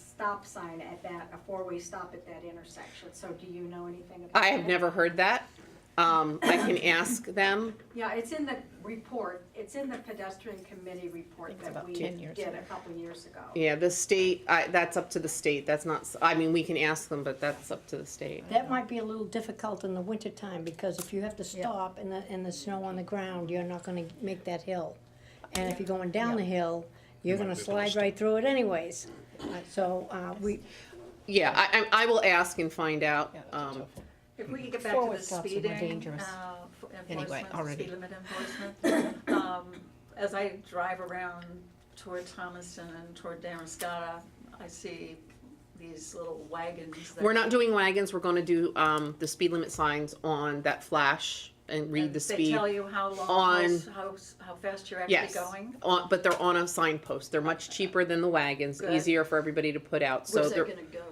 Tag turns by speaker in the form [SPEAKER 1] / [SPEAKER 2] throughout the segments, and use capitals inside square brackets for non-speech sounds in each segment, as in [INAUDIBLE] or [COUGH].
[SPEAKER 1] stop sign at that, a four-way stop at that intersection, so do you know anything about
[SPEAKER 2] I have
[SPEAKER 1] that?
[SPEAKER 2] never heard that. Um, I can ask them.
[SPEAKER 1] Yeah, it's in the report, it's in the pedestrian committee report
[SPEAKER 3] It's
[SPEAKER 1] that
[SPEAKER 3] about
[SPEAKER 1] we
[SPEAKER 3] 10 years
[SPEAKER 1] did
[SPEAKER 3] ago.
[SPEAKER 1] a couple years ago.
[SPEAKER 2] Yeah, the state, I, that's up to the state. That's not, s- I mean, we can ask them, but that's up to the state.
[SPEAKER 4] That might be a little difficult in the wintertime, because if you have to stop and the, and the snow on the ground, you're not gonna make that hill. And if you're going down the hill, you're gonna slide right through it anyways. Uh, So, uh, we,
[SPEAKER 2] Yeah, I, I, I will ask and find out.
[SPEAKER 3] Yeah, that's a
[SPEAKER 2] Um,
[SPEAKER 3] tough one.
[SPEAKER 5] If we could get back to
[SPEAKER 3] Forward
[SPEAKER 5] the
[SPEAKER 3] stops are more
[SPEAKER 5] speeding,
[SPEAKER 3] dangerous.
[SPEAKER 5] uh, f-
[SPEAKER 3] Anyway,
[SPEAKER 5] enforcement, the
[SPEAKER 3] already.
[SPEAKER 5] speed limit enforcement, um, as I drive around toward Thomaston and toward Damascata, I see these little wagons that.
[SPEAKER 2] We're not doing wagons. We're gonna do, um, the speed limit signs on that flash and read
[SPEAKER 5] and
[SPEAKER 2] the
[SPEAKER 5] They
[SPEAKER 2] speed.
[SPEAKER 5] tell you how long,
[SPEAKER 2] on-
[SPEAKER 5] how, s- how, s- how fast you're actually
[SPEAKER 2] Yes.
[SPEAKER 5] going.
[SPEAKER 2] On, but they're on a signpost. They're much cheaper than the wagons,
[SPEAKER 5] Good.
[SPEAKER 2] easier for everybody to put out. So
[SPEAKER 5] Where's that
[SPEAKER 2] they're,
[SPEAKER 5] gonna go?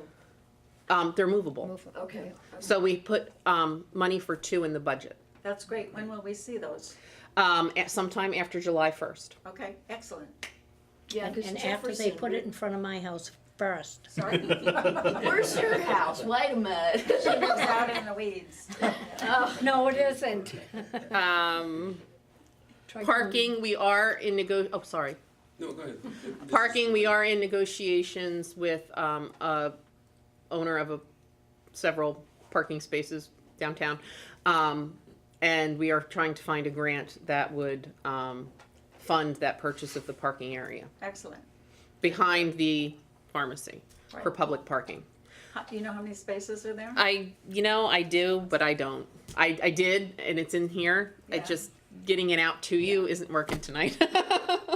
[SPEAKER 2] um, they're movable.
[SPEAKER 3] Move it.
[SPEAKER 5] Okay,
[SPEAKER 2] So we put, um, money for two in the budget,
[SPEAKER 5] that's great. When will we see those?
[SPEAKER 2] um, at sometime after July first.
[SPEAKER 5] Okay, excellent.
[SPEAKER 6] Yeah,
[SPEAKER 4] and
[SPEAKER 6] because
[SPEAKER 4] and after they put it in front of my house first.
[SPEAKER 5] Sorry,
[SPEAKER 6] Where's your house? Wait a
[SPEAKER 5] she lives
[SPEAKER 6] minute.
[SPEAKER 5] out in the weeds.
[SPEAKER 6] Oh,
[SPEAKER 4] No, it isn't.
[SPEAKER 2] Um,
[SPEAKER 4] Try to-
[SPEAKER 2] parking, we are in nego, oh, sorry.
[SPEAKER 7] No, go ahead. This is-
[SPEAKER 2] Parking, we are in negotiations with, um, a owner of a, several parking spaces downtown. Um, and we are trying to find a grant that would, um, fund that purchase of the parking area
[SPEAKER 5] Excellent.
[SPEAKER 2] behind the pharmacy for
[SPEAKER 5] Right.
[SPEAKER 2] public parking.
[SPEAKER 5] How- Do you know how many spaces are there?
[SPEAKER 2] [LAUGHS] I, you know, I do, but I don't. I, I did, and it's in here.
[SPEAKER 5] Yeah.
[SPEAKER 2] It just, getting it out to you isn't working tonight. [LAUGHS]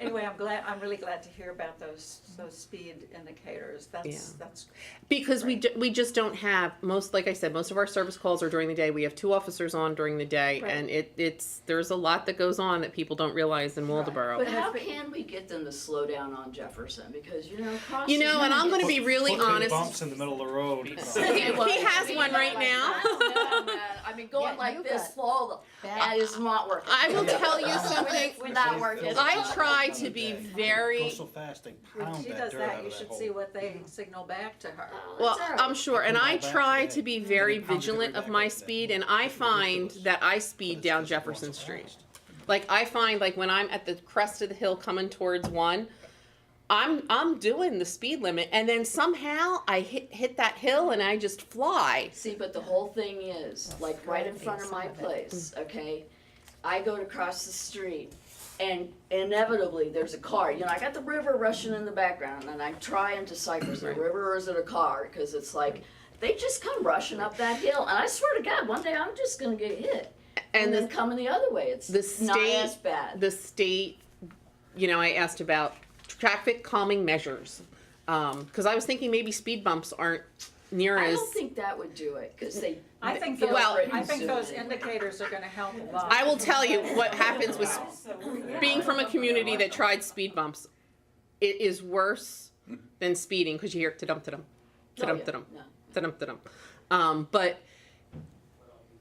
[SPEAKER 5] Anyway, I'm glad, I'm really glad to hear about those, those speed indicators. That's, that's,
[SPEAKER 2] Because we, ju- we just don't have most, like I said, most of our service calls are during the day. We have two officers on during the day,
[SPEAKER 5] Right.
[SPEAKER 2] and it, it's there's a lot that goes on that people don't realize in Waldeboro.
[SPEAKER 6] But how can we get them to slow down on Jefferson? Because, you know, crossing.
[SPEAKER 2] You know, and I'm going to be really
[SPEAKER 8] Put the
[SPEAKER 2] honest.
[SPEAKER 8] Bumps in the middle of the road.
[SPEAKER 2] [LAUGHS] He- he has one right now.
[SPEAKER 6] I mean, going
[SPEAKER 3] Yeah, you
[SPEAKER 6] like this,
[SPEAKER 3] got
[SPEAKER 6] slow, that is not working.
[SPEAKER 2] I will tell
[SPEAKER 5] [LAUGHS]
[SPEAKER 2] you something.
[SPEAKER 6] We're not working.
[SPEAKER 2] I try to be
[SPEAKER 8] Go
[SPEAKER 2] very
[SPEAKER 8] so fast, they
[SPEAKER 5] when
[SPEAKER 8] pound
[SPEAKER 5] she
[SPEAKER 8] that
[SPEAKER 5] does
[SPEAKER 8] dirt out
[SPEAKER 5] that,
[SPEAKER 8] of
[SPEAKER 5] you
[SPEAKER 8] that
[SPEAKER 5] should
[SPEAKER 8] hole.
[SPEAKER 5] see what they signal back to her.
[SPEAKER 2] Well, um, I'm sure, and I
[SPEAKER 8] Back to
[SPEAKER 2] try
[SPEAKER 8] that.
[SPEAKER 2] to be
[SPEAKER 8] Yeah,
[SPEAKER 2] very
[SPEAKER 8] they pounded it
[SPEAKER 2] vigilant
[SPEAKER 8] right
[SPEAKER 2] of
[SPEAKER 8] back
[SPEAKER 2] my
[SPEAKER 8] up there.
[SPEAKER 2] speed, and I find
[SPEAKER 8] ridiculous.
[SPEAKER 2] that I
[SPEAKER 8] But
[SPEAKER 2] speed
[SPEAKER 8] it's
[SPEAKER 2] down
[SPEAKER 8] just going
[SPEAKER 2] Jefferson
[SPEAKER 8] so
[SPEAKER 2] Street.
[SPEAKER 8] fast.
[SPEAKER 2] Like I find, like when I'm at the crest of the hill coming towards one, I'm I'm doing the speed limit, and then somehow I hit hit that hill and I just fly.
[SPEAKER 6] See, but the whole thing is, like, right in front of my place, okay? I go to cross the street and inevitably there's a car, you know, I got the river rushing in the background and I'm trying to cycle to the river or is it a car? Cause it's like, they just come rushing up that hill and I swear to God, one day I'm just gonna get hit. And
[SPEAKER 2] And
[SPEAKER 6] then
[SPEAKER 2] the,
[SPEAKER 6] coming the other way, it's
[SPEAKER 2] the
[SPEAKER 6] not
[SPEAKER 2] state-
[SPEAKER 6] as bad.
[SPEAKER 2] the state, you know, I asked about traffic calming measures, because I was thinking maybe speed bumps aren't near
[SPEAKER 6] I
[SPEAKER 2] as.
[SPEAKER 6] don't think that would do it, cause they.
[SPEAKER 5] I think
[SPEAKER 6] they'll
[SPEAKER 5] those, I
[SPEAKER 6] threaten
[SPEAKER 5] think those
[SPEAKER 6] soon.
[SPEAKER 5] indicators are gonna help a lot.
[SPEAKER 2] I will tell you what happens with being from a community that tried speed bumps. It is worse than speeding because you hear ta-dum ta-dum,
[SPEAKER 6] Oh,
[SPEAKER 2] ta-dum
[SPEAKER 6] yeah,
[SPEAKER 2] ta-dum,
[SPEAKER 6] no.
[SPEAKER 2] ta-dum ta-dum. Um, but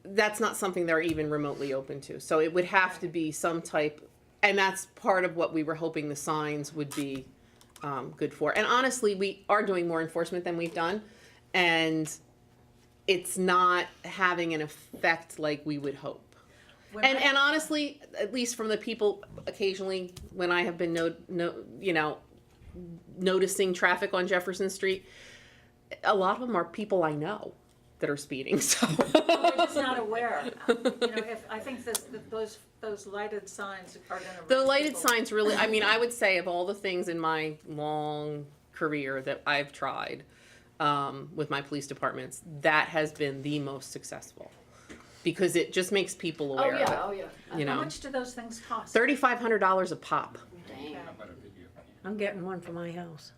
[SPEAKER 2] that's not something they're even remotely open to. So it would have to be some type, and that's part of what we were hoping the signs would be um, good for. And honestly, we are doing more enforcement than we've done, and it's not having an effect like we would hope.
[SPEAKER 5] When
[SPEAKER 2] And
[SPEAKER 5] I-
[SPEAKER 2] and honestly, at least from the people occasionally when I have been no no you know noticing traffic on Jefferson Street, a lot of them are people I know that are speeding. [LAUGHS] So
[SPEAKER 5] They're just
[SPEAKER 2] [LAUGHS]
[SPEAKER 5] not aware. You know, if, I think this, that those, those lighted signs are gonna.
[SPEAKER 2] the
[SPEAKER 5] raise
[SPEAKER 2] lighted
[SPEAKER 5] people.
[SPEAKER 2] signs really. I mean, I would say of all the things in my long career that I've tried um, with my police departments, that has been the most successful because it just makes people
[SPEAKER 6] Oh,
[SPEAKER 2] aware. of
[SPEAKER 6] yeah, oh, yeah.
[SPEAKER 2] it, you
[SPEAKER 5] How
[SPEAKER 2] know,
[SPEAKER 5] much do those things cost?
[SPEAKER 2] thirty five hundred dollars a pop.
[SPEAKER 6] Damn.
[SPEAKER 4] I'm getting one for my house.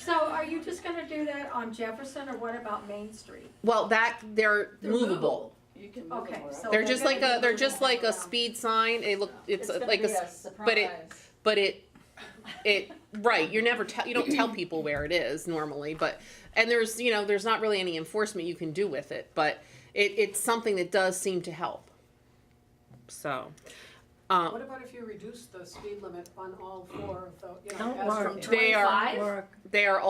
[SPEAKER 1] So are you just gonna do that on Jefferson, or what about Main Street?
[SPEAKER 2] Well, that they're, movable.
[SPEAKER 6] You can move
[SPEAKER 1] Okay,
[SPEAKER 6] them around.
[SPEAKER 1] so.
[SPEAKER 2] They're just
[SPEAKER 1] gonna
[SPEAKER 2] like
[SPEAKER 1] be
[SPEAKER 2] a they're
[SPEAKER 1] moving
[SPEAKER 2] just like a
[SPEAKER 1] around.
[SPEAKER 2] speed sign. It look it's,
[SPEAKER 5] gonna
[SPEAKER 2] like a,
[SPEAKER 5] be
[SPEAKER 2] s- but it-
[SPEAKER 5] surprise.
[SPEAKER 2] but it it right. You're never tell you don't tell people where it is normally, but and there's you know there's not really any enforcement you can do with it, but it, it's something that does seem to help. So, um,
[SPEAKER 9] What about if you reduce the speed limit on all four of those, you know,
[SPEAKER 4] Don't
[SPEAKER 9] as
[SPEAKER 4] worry. They
[SPEAKER 9] from
[SPEAKER 2] they are
[SPEAKER 6] 25?
[SPEAKER 4] Work.
[SPEAKER 2] they are